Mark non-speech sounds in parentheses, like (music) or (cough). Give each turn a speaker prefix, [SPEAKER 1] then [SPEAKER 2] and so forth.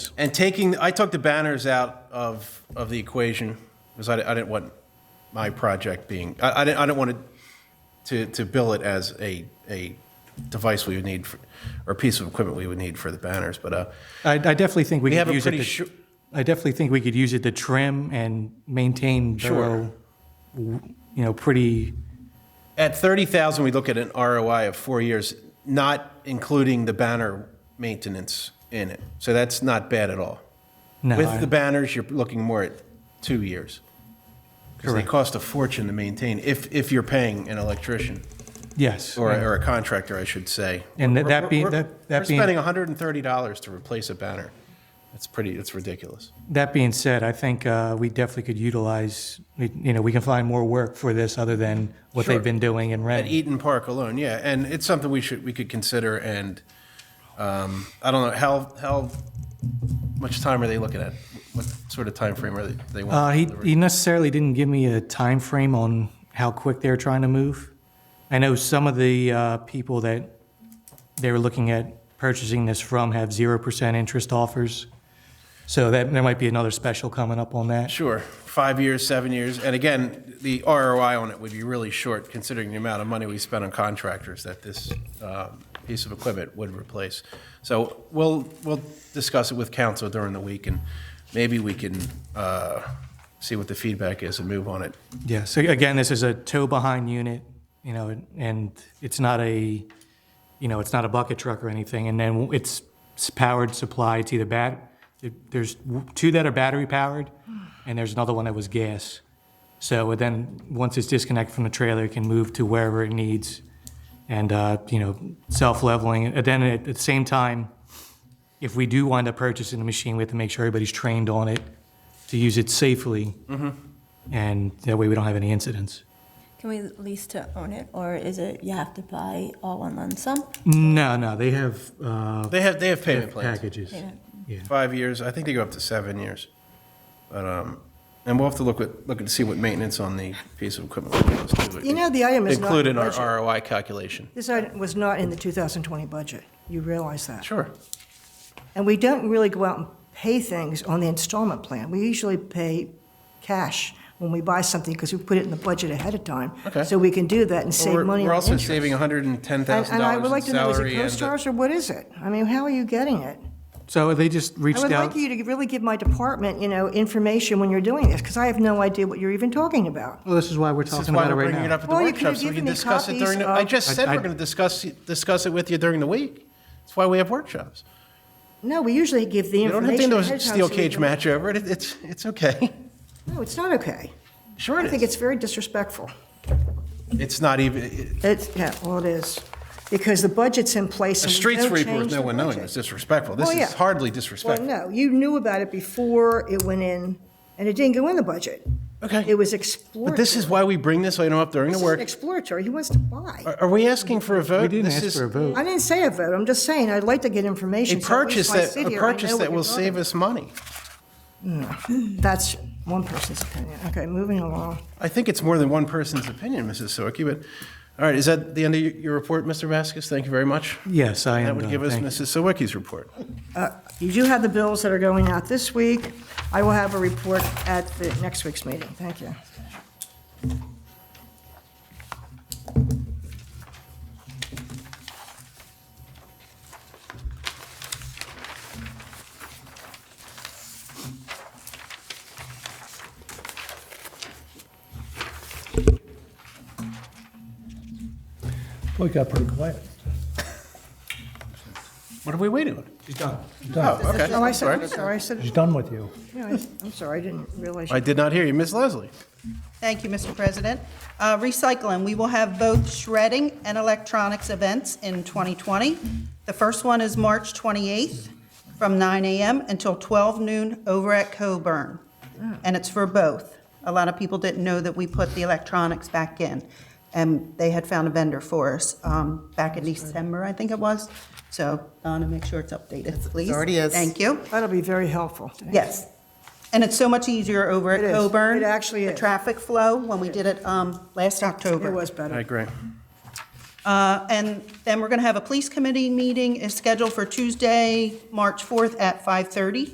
[SPEAKER 1] And taking, I took the banners out of, of the equation, because I, I didn't want my project being, I, I didn't, I didn't want to, to bill it as a, a device we would need, for- or a piece of equipment we would need for the banners, but, uh,
[SPEAKER 2] I, I definitely think we
[SPEAKER 1] We
[SPEAKER 2] could
[SPEAKER 1] have a
[SPEAKER 2] use it
[SPEAKER 1] pretty
[SPEAKER 2] to,
[SPEAKER 1] shor-
[SPEAKER 2] I definitely think we could use it to trim and maintain thorough, w- you know, pretty,
[SPEAKER 1] at 30,000, we look at an ROI of four years, not including the banner maintenance in it. So that's not bad at all.
[SPEAKER 2] no, I-
[SPEAKER 1] With the banners, you're looking more at two years. Because they
[SPEAKER 2] Correct.
[SPEAKER 1] cost a fortune to maintain, if, if you're paying an electrician,
[SPEAKER 2] yes.
[SPEAKER 1] or,
[SPEAKER 2] and-
[SPEAKER 1] or a contractor, I should say.
[SPEAKER 2] And that-
[SPEAKER 1] We're-
[SPEAKER 2] that being-
[SPEAKER 1] we're-
[SPEAKER 2] that- that
[SPEAKER 1] We're
[SPEAKER 2] being-
[SPEAKER 1] spending $130 to replace a banner. That's pretty, that's ridiculous.
[SPEAKER 2] That being said, I think uh, we definitely could utilize, we- you know, we can find more work for this other than what
[SPEAKER 1] Sure.
[SPEAKER 2] they've been doing in
[SPEAKER 1] At
[SPEAKER 2] Reading.
[SPEAKER 1] Eaton Park alone, yeah, and it's something we should, we could consider, and, um, I don't know, how, how much time are they looking at? What sort of time frame are they, they
[SPEAKER 2] Uh,
[SPEAKER 1] want?
[SPEAKER 2] he,
[SPEAKER 1] delivery?
[SPEAKER 2] he necessarily didn't give me a time frame on how quick they're trying to move. I know some of the uh, people that they were looking at purchasing this from have zero percent interest offers, so that there might be another special coming up on that.
[SPEAKER 1] Sure, five years, seven years, and again, the ROI on it would be really short, considering the amount of money we spent on contractors that this um, piece of equipment would replace. So we'll, we'll discuss it with council during the week, and maybe we can uh, see what the feedback is and move on it.
[SPEAKER 2] Yeah. So again, this is a tow behind unit, you know, and it's not a, you know, it's not a bucket truck or anything. And then it's s- powered supply. It's either bat. There's w- two that are battery powered, and there's another one that was gas. So then, once it's disconnected from the trailer, it can move to wherever it needs, and uh, you know, self leveling. And then at, at the same time, if we do wind up purchasing the machine, we have to make sure everybody's trained on it to use it safely and that way we don't have any incidents.
[SPEAKER 3] Can we lease to own it, or is it you have to buy all one lump sum?
[SPEAKER 2] No, no, they have uh,
[SPEAKER 1] They have, they have payment plans.
[SPEAKER 2] packages.
[SPEAKER 3] Yeah.
[SPEAKER 2] Yeah.
[SPEAKER 1] Five years, I think they go up to seven years. But, um, and we'll have to look at, look and see what maintenance on the piece of equipment is. too.
[SPEAKER 4] You know, the item is not
[SPEAKER 1] Include in
[SPEAKER 4] budget.
[SPEAKER 1] our ROI calculation.
[SPEAKER 4] This item was not in the 2020 budget. You realize that.
[SPEAKER 1] Sure.
[SPEAKER 4] And we don't really go out and pay things on the installment plan. We usually pay cash when we buy something because we put it in the budget ahead of time.
[SPEAKER 1] Okay.
[SPEAKER 4] So we can do that and
[SPEAKER 1] Well,
[SPEAKER 4] save
[SPEAKER 1] we're-
[SPEAKER 4] money
[SPEAKER 1] We're
[SPEAKER 4] on
[SPEAKER 1] also
[SPEAKER 4] interest.
[SPEAKER 1] saving $110,000 in
[SPEAKER 4] And
[SPEAKER 1] salary.
[SPEAKER 4] and I would like to know, is it
[SPEAKER 1] and the-
[SPEAKER 4] CoStarz or what is it? I mean, how are you getting it?
[SPEAKER 2] So they just
[SPEAKER 4] I
[SPEAKER 2] reached
[SPEAKER 4] would
[SPEAKER 2] out.
[SPEAKER 4] like you to really give my department, you know, information when you're doing this because I have no idea what you're even talking about.
[SPEAKER 2] well, this is why we're
[SPEAKER 1] This is
[SPEAKER 2] talking
[SPEAKER 1] why
[SPEAKER 2] about it
[SPEAKER 1] we're
[SPEAKER 2] right
[SPEAKER 1] bringing it
[SPEAKER 2] now.
[SPEAKER 1] up at the
[SPEAKER 4] Well, you could
[SPEAKER 1] workshop,
[SPEAKER 4] have
[SPEAKER 1] so we can
[SPEAKER 4] given me
[SPEAKER 1] discuss it during, the-
[SPEAKER 4] copies
[SPEAKER 1] I just
[SPEAKER 2] of-
[SPEAKER 1] said
[SPEAKER 2] I-
[SPEAKER 1] we're
[SPEAKER 2] I-
[SPEAKER 1] going to discuss, discuss it with you during the week. That's why we have workshops.
[SPEAKER 4] No, we usually give the
[SPEAKER 1] You don't have
[SPEAKER 4] information
[SPEAKER 1] to
[SPEAKER 4] ahead
[SPEAKER 1] do
[SPEAKER 4] of time.
[SPEAKER 1] a steel
[SPEAKER 4] so we
[SPEAKER 1] cage
[SPEAKER 4] can-
[SPEAKER 1] match over it, It- it's, it's
[SPEAKER 4] (laughs)
[SPEAKER 1] okay.
[SPEAKER 4] No, it's not okay.
[SPEAKER 1] Sure
[SPEAKER 4] I
[SPEAKER 1] it
[SPEAKER 4] think
[SPEAKER 1] is.
[SPEAKER 4] it's very disrespectful.
[SPEAKER 1] It's not even,
[SPEAKER 4] It's, yeah, well, it is, because the budget's in place
[SPEAKER 1] a
[SPEAKER 4] and we
[SPEAKER 1] street
[SPEAKER 4] don't
[SPEAKER 1] sweeper with
[SPEAKER 4] change
[SPEAKER 1] no
[SPEAKER 4] the
[SPEAKER 1] one knowing
[SPEAKER 4] budget.
[SPEAKER 1] is disrespectful. This
[SPEAKER 4] Well,
[SPEAKER 1] is
[SPEAKER 4] yeah.
[SPEAKER 1] hardly
[SPEAKER 4] Well,
[SPEAKER 1] disrespectful.
[SPEAKER 4] no, you knew about it before it went in, and it didn't go in the budget. It
[SPEAKER 1] Okay,
[SPEAKER 4] was exploratory.
[SPEAKER 1] but this is why we bring this item up during the
[SPEAKER 4] This isn't
[SPEAKER 1] work.
[SPEAKER 4] exploratory, he wants to buy.
[SPEAKER 1] Are are we asking for a vote?
[SPEAKER 2] We didn't
[SPEAKER 1] This
[SPEAKER 2] ask
[SPEAKER 1] is
[SPEAKER 2] for a vote.
[SPEAKER 4] I didn't say a vote, I'm just saying, I'd like to get
[SPEAKER 1] A
[SPEAKER 4] information. so at
[SPEAKER 1] purchase
[SPEAKER 4] least when I
[SPEAKER 1] that,
[SPEAKER 4] sit
[SPEAKER 1] a
[SPEAKER 4] here, I know
[SPEAKER 1] purchase
[SPEAKER 4] what
[SPEAKER 1] that
[SPEAKER 4] you're
[SPEAKER 1] will
[SPEAKER 4] talking
[SPEAKER 1] save us money.
[SPEAKER 4] about. That's one person's opinion, okay, moving along.
[SPEAKER 1] I think it's more than one person's opinion, Mrs. Soki, but, all right, is that the end of your- your report, Mr. Vasquez? Thank you very much.
[SPEAKER 2] Yes, I am.
[SPEAKER 1] That would
[SPEAKER 2] done.
[SPEAKER 1] give us
[SPEAKER 2] uh, Thank you.
[SPEAKER 1] Mrs. Sawicki's report.
[SPEAKER 4] You do have the bills that are going out this week, I will have a report at the next week's meeting, thank you.
[SPEAKER 5] Well, it got pretty quiet.
[SPEAKER 1] What are we waiting on?
[SPEAKER 5] She's done.
[SPEAKER 1] Oh, okay.
[SPEAKER 4] Oh, I said,
[SPEAKER 1] Sorry.
[SPEAKER 4] I'm sorry, I said,
[SPEAKER 5] She's done with you.
[SPEAKER 4] yeah, I- I'm sorry, I didn't realize. you-
[SPEAKER 1] I did not hear you. Ms. Leslie?
[SPEAKER 6] Thank you, Mr. President. Uh, Recycling, we will have both shredding and electronics events in 2020. The first one is March 28th from 9 a.m. until 12 noon over at Coburn, and it's for both. A lot of people didn't know that we put the electronics back in, and they had found a vendor for us um, back in December, I think it was. So Donna, make sure it's updated, please.
[SPEAKER 7] already is.
[SPEAKER 6] Thank you.
[SPEAKER 4] That'll be very helpful.
[SPEAKER 6] Yes. And it's so much easier over
[SPEAKER 4] It
[SPEAKER 6] at
[SPEAKER 4] is.
[SPEAKER 6] Coburn.
[SPEAKER 4] It actually
[SPEAKER 6] The
[SPEAKER 4] is.
[SPEAKER 6] traffic flow, when we did it um, last October.
[SPEAKER 4] It was
[SPEAKER 1] I
[SPEAKER 4] better.
[SPEAKER 1] agree.
[SPEAKER 6] Uh, And then we're going to have a police committee meeting is scheduled for Tuesday, March 4th at 5:30.